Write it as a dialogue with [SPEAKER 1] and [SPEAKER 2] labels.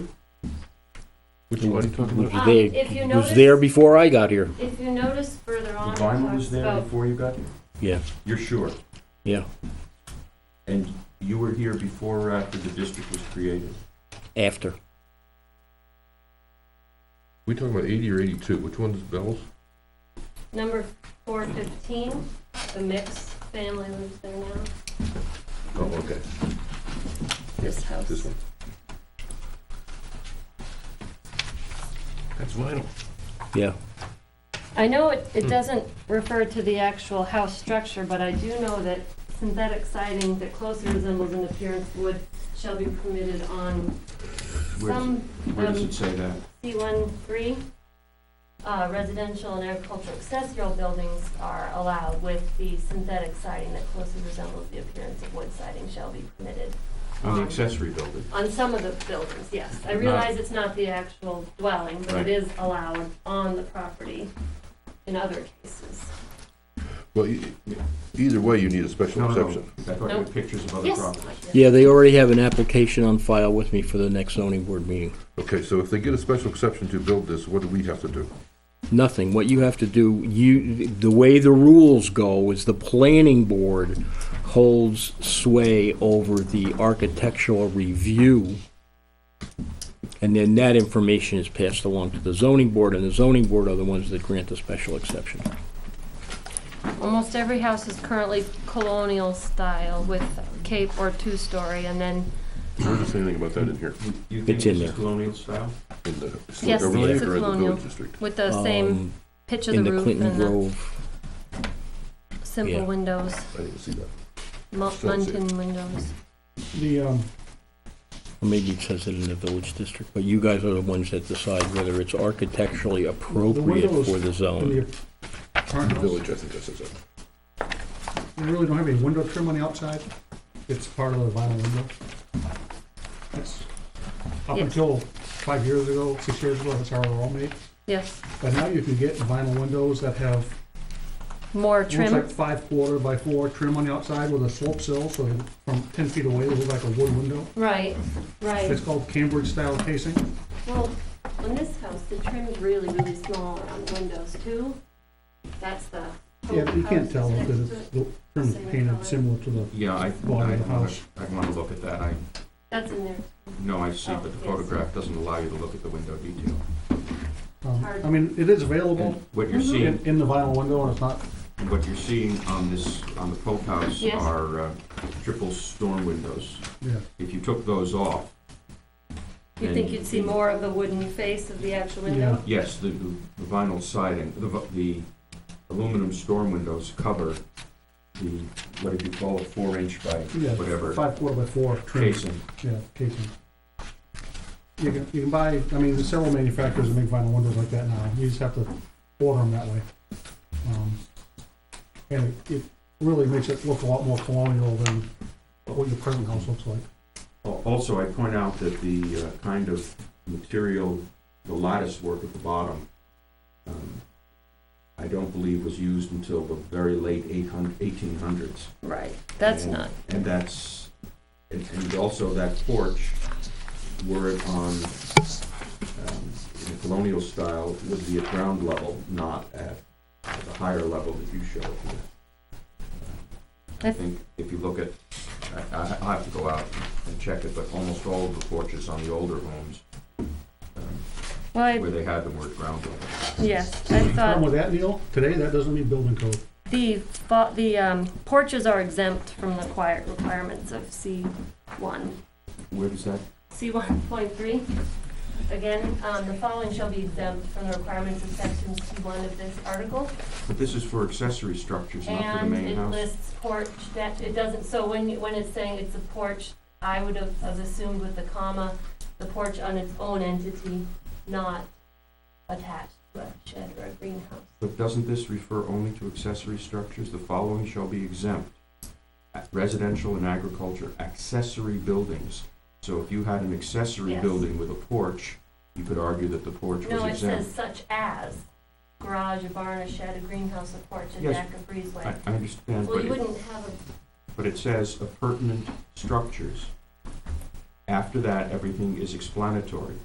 [SPEAKER 1] Which one are you talking
[SPEAKER 2] Who's
[SPEAKER 1] about?
[SPEAKER 3] Um,
[SPEAKER 2] there-
[SPEAKER 3] if you
[SPEAKER 2] Who's there
[SPEAKER 3] notice-
[SPEAKER 2] before I got here?
[SPEAKER 3] If you notice further on,
[SPEAKER 1] The
[SPEAKER 3] it
[SPEAKER 1] vinyl
[SPEAKER 3] talks
[SPEAKER 1] was there
[SPEAKER 3] about,
[SPEAKER 1] before you got here?
[SPEAKER 2] Yeah,
[SPEAKER 1] You're sure?
[SPEAKER 2] yeah.
[SPEAKER 1] And you were here before or after the district was created?
[SPEAKER 2] After.
[SPEAKER 4] We talking about eighty or eighty-two? Which one's Bell's?
[SPEAKER 3] number four fifteen, the mixed family lives there now,
[SPEAKER 4] Oh, okay,
[SPEAKER 3] this house.
[SPEAKER 4] this one. That's vinyl.
[SPEAKER 2] Yeah.
[SPEAKER 3] I know it,
[SPEAKER 1] Hmm.
[SPEAKER 3] it doesn't refer to the actual house structure, but I do know that synthetic siding that closely resembles in appearance wood shall be permitted on
[SPEAKER 1] Where does-
[SPEAKER 3] some,
[SPEAKER 1] Where does
[SPEAKER 3] um,
[SPEAKER 1] it say that?
[SPEAKER 3] C one three. Uh, residential and agricultural accessory buildings are allowed with the synthetic siding that closely resembles the appearance of wood siding shall be permitted.
[SPEAKER 1] On
[SPEAKER 3] um,
[SPEAKER 1] the accessory building?
[SPEAKER 3] On some of the buildings, yes. I
[SPEAKER 1] Not-
[SPEAKER 3] realize it's not the actual dwelling, but
[SPEAKER 1] Right.
[SPEAKER 3] it is allowed on the property in other cases.
[SPEAKER 4] Well, e- e- either way, you need a special
[SPEAKER 1] No, no, no.
[SPEAKER 4] exception.
[SPEAKER 1] I thought you had pictures of other
[SPEAKER 3] Yes.
[SPEAKER 1] properties.
[SPEAKER 2] Yeah, they already have an application on file with me for the next zoning board meeting.
[SPEAKER 4] Okay, so if they get a special exception to build this, what do we have to do?
[SPEAKER 2] Nothing. What you have to do, you, the way the rules go is the planning board holds sway over the architectural review. And then that information is passed along to the zoning board, and the zoning board are the ones that grant the special exception.
[SPEAKER 3] Almost every house is currently colonial style with cape or two-story, and then,
[SPEAKER 4] Where does anything about that in here?
[SPEAKER 1] You- You think
[SPEAKER 2] It's in
[SPEAKER 1] this is
[SPEAKER 2] there.
[SPEAKER 1] colonial style?
[SPEAKER 4] In the historic
[SPEAKER 3] Yes,
[SPEAKER 4] overlay
[SPEAKER 3] it's a
[SPEAKER 4] or in the
[SPEAKER 3] colonial.
[SPEAKER 4] village district?
[SPEAKER 3] with the same
[SPEAKER 2] Um,
[SPEAKER 3] pitch of
[SPEAKER 2] In
[SPEAKER 3] the
[SPEAKER 2] the
[SPEAKER 3] roof
[SPEAKER 2] Clinton
[SPEAKER 3] and the
[SPEAKER 2] Grove, yeah.
[SPEAKER 3] simple windows,
[SPEAKER 4] I didn't see that.
[SPEAKER 3] mu-
[SPEAKER 4] Still see it.
[SPEAKER 3] muntin windows.
[SPEAKER 5] The, um,
[SPEAKER 2] or maybe it says it in the village district, but you guys are the ones that decide whether it's architecturally appropriate
[SPEAKER 5] windows
[SPEAKER 2] for the
[SPEAKER 5] in
[SPEAKER 2] zone.
[SPEAKER 5] the apartment house,
[SPEAKER 4] Village, I think that says that.
[SPEAKER 5] you really don't have any window trim on the outside? It's part of the vinyl window? That's, up
[SPEAKER 3] Yes.
[SPEAKER 5] until five years ago, six years ago, that's how they're all made.
[SPEAKER 3] Yes,
[SPEAKER 5] But now you can get vinyl windows that have,
[SPEAKER 3] more
[SPEAKER 5] it looks like
[SPEAKER 3] trim,
[SPEAKER 5] five quarter by four trim on the outside with a slope sill, so they- from ten feet away, they look like a wood window.
[SPEAKER 3] right, right.
[SPEAKER 5] It's called Cambridge style casing.
[SPEAKER 3] Well, on this house, the trim's really, really small around the windows too. That's the.
[SPEAKER 5] Yeah, you can't tell
[SPEAKER 3] House is
[SPEAKER 5] because
[SPEAKER 3] next to
[SPEAKER 5] it's,
[SPEAKER 3] it.
[SPEAKER 5] the trim's
[SPEAKER 3] Oh, Same color.
[SPEAKER 5] painted similar to the,
[SPEAKER 1] Yeah, I, I
[SPEAKER 5] Bottom of the
[SPEAKER 1] wanna,
[SPEAKER 5] house.
[SPEAKER 1] I wanna look at that. I,
[SPEAKER 3] That's in there.
[SPEAKER 1] no, I see, but
[SPEAKER 3] Oh,
[SPEAKER 1] the
[SPEAKER 3] yes.
[SPEAKER 1] photograph doesn't allow you to look at the window detail.
[SPEAKER 5] um,
[SPEAKER 3] Hard.
[SPEAKER 5] I mean, it is available
[SPEAKER 1] And what you're
[SPEAKER 5] in,
[SPEAKER 1] seeing
[SPEAKER 5] in the vinyl window and it's not
[SPEAKER 1] What you're seeing on this, on the Pope House
[SPEAKER 3] Yes.
[SPEAKER 1] are uh, triple storm windows.
[SPEAKER 5] Yeah.
[SPEAKER 1] If you took those off,
[SPEAKER 3] You'd think you'd see more of the wooden face of the actual window?
[SPEAKER 5] Yeah.
[SPEAKER 1] yes, the the vinyl siding, the v- the aluminum storm windows cover the, what did you call it, four inch by
[SPEAKER 5] Yeah,
[SPEAKER 1] whatever
[SPEAKER 5] five quarter by four trim.
[SPEAKER 1] casing.
[SPEAKER 5] Yeah, casing. You can, you can buy, I mean, there's several manufacturers that make vinyl windows like that now, you just have to order them that way. Um, And it- it really makes it look a lot more colonial than what your present house looks like.
[SPEAKER 1] Al- Also, I point out that the uh, kind of material, the lattice work at the bottom, um, I don't believe was used until the very late 800 1800s.
[SPEAKER 3] Right, that's
[SPEAKER 1] And-
[SPEAKER 3] not,
[SPEAKER 1] And that's, and- and also that porch, were it on, um, in a colonial style, would be at ground level, not at the higher level that you show here. I
[SPEAKER 3] That's-
[SPEAKER 1] think if you look at, I, I I'll have to go out and check it, but almost all of the porches on the older homes, um,
[SPEAKER 3] well, I-
[SPEAKER 1] where they had them were at ground level.
[SPEAKER 3] yes, I
[SPEAKER 5] Problem
[SPEAKER 3] thought
[SPEAKER 5] with that, Neil, today, that doesn't mean building code.
[SPEAKER 3] the, fa- the um, porches are exempt from the quiet requirements of C one.
[SPEAKER 1] Where does that?
[SPEAKER 3] C one point three, again, um, the following shall be exempt from the requirements of section C one of this article.
[SPEAKER 1] But this is for accessory structures, not for the
[SPEAKER 3] And
[SPEAKER 1] main
[SPEAKER 3] it
[SPEAKER 1] house.
[SPEAKER 3] lists porch, that, it doesn't, so when, you- when it's saying it's a porch, I would have have assumed with the comma, the porch on its own entity, not attached to a shed or a greenhouse.
[SPEAKER 1] But doesn't this refer only to accessory structures? The following shall be exempt. Residential and agriculture accessory buildings. So if you had an accessory
[SPEAKER 3] Yes.
[SPEAKER 1] building with a porch, you could argue that the porch was
[SPEAKER 3] No, it says
[SPEAKER 1] exempt.
[SPEAKER 3] such as garage, a barn, a shed, a greenhouse, a porch, a
[SPEAKER 1] Yes.
[SPEAKER 3] deck, a
[SPEAKER 1] I,
[SPEAKER 3] breezeway.
[SPEAKER 1] I understand,
[SPEAKER 3] Well,
[SPEAKER 1] but
[SPEAKER 3] you
[SPEAKER 1] it,
[SPEAKER 3] wouldn't have a,
[SPEAKER 1] but it says appurtenant structures. After that, everything is explanatory.